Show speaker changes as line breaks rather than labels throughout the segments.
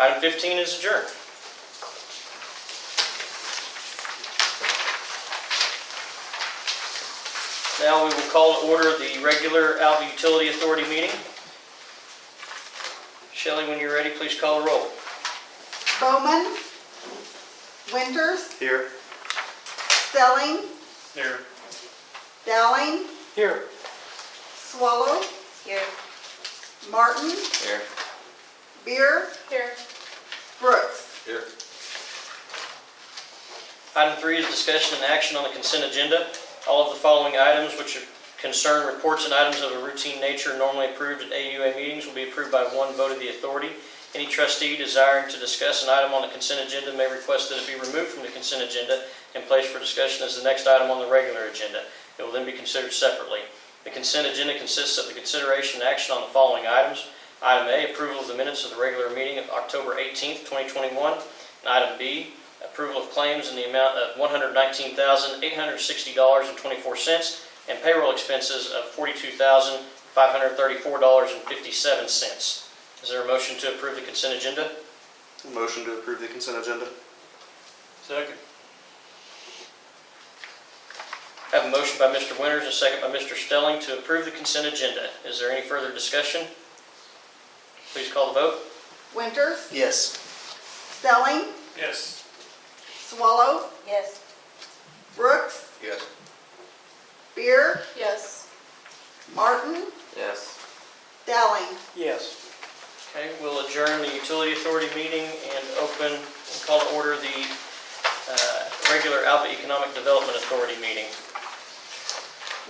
Item 15 is adjourned. Now we will call to order the regular Alva Utility Authority meeting. Shelley, when you're ready, please call a roll.
Bowman. Winters.
Here.
Stelling.
Here.
Dowling.
Here.
Swallow.
Here.
Martin.
Here.
Beer.
Here.
Brooks.
Here. Item three is discussion and action on the consent agenda. All of the following items which concern reports and items of a routine nature normally approved at AUA meetings will be approved by one vote of the authority. Any trustee desiring to discuss an item on the consent agenda may request that it be removed from the consent agenda and placed for discussion as the next item on the regular agenda. It will then be considered separately. The consent agenda consists of the consideration and action on the following items. Item A, approval of the minutes of the regular meeting of October 18th, 2021. And item B, approval of claims in the amount of $119,860.24 and payroll expenses of $42,534.57. Is there a motion to approve the consent agenda?
Motion to approve the consent agenda?
Second. I have a motion by Mr. Winters and a second by Mr. Stelling to approve the consent agenda. Is there any further discussion? Please call the vote.
Winters.
Yes.
Stelling.
Yes.
Swallow.
Yes.
Brooks.
Yes.
Beer.
Yes.
Martin.
Yes.
Dowling.
Yes.
Okay, we'll adjourn the utility authority meeting and open, and call to order the uh, regular Alva Economic Development Authority meeting.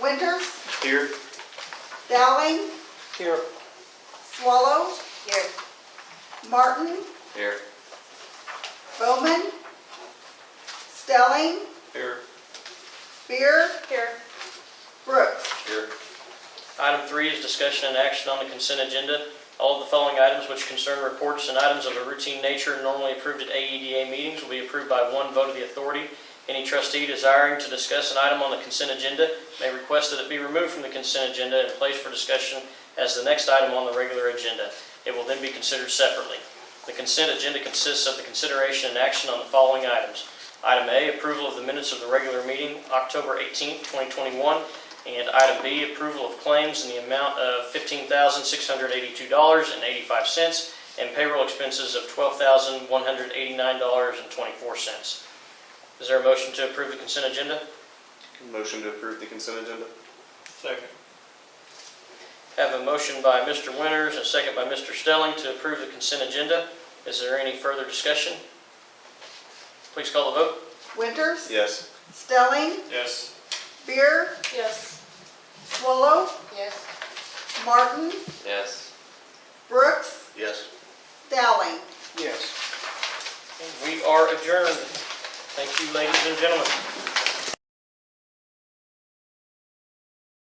Winters.
Here?
Dowling.
Here.
Swallow.
Here.
Martin.
Here.
Bowman. Stelling.
Here.
Beer.
Here.
Brooks.
Here.
Item three is discussion and action on the consent agenda. All of the following items which concern reports and items of a routine nature normally approved at AEDA meetings will be approved by one vote of the authority. Any trustee desiring to discuss an item on the consent agenda may request that it be removed from the consent agenda and placed for discussion as the next item on the regular agenda. It will then be considered separately. The consent agenda consists of the consideration and action on the following items. Item A, approval of the minutes of the regular meeting, October 18th, 2021. And item B, approval of claims in the amount of $15,682.85 and payroll expenses of $12,189.24. Is there a motion to approve the consent agenda?
Motion to approve the consent agenda?
Second. Have a motion by Mr. Winters and a second by Mr. Stelling to approve the consent agenda. Is there any further discussion? Please call the vote.
Winters.
Yes.
Stelling.
Yes.
Beer.
Yes.
Swallow.
Yes.
Martin.
Yes.
Brooks.
Yes.
Dowling.
Yes.
We are adjourned. Thank you, ladies and gentlemen.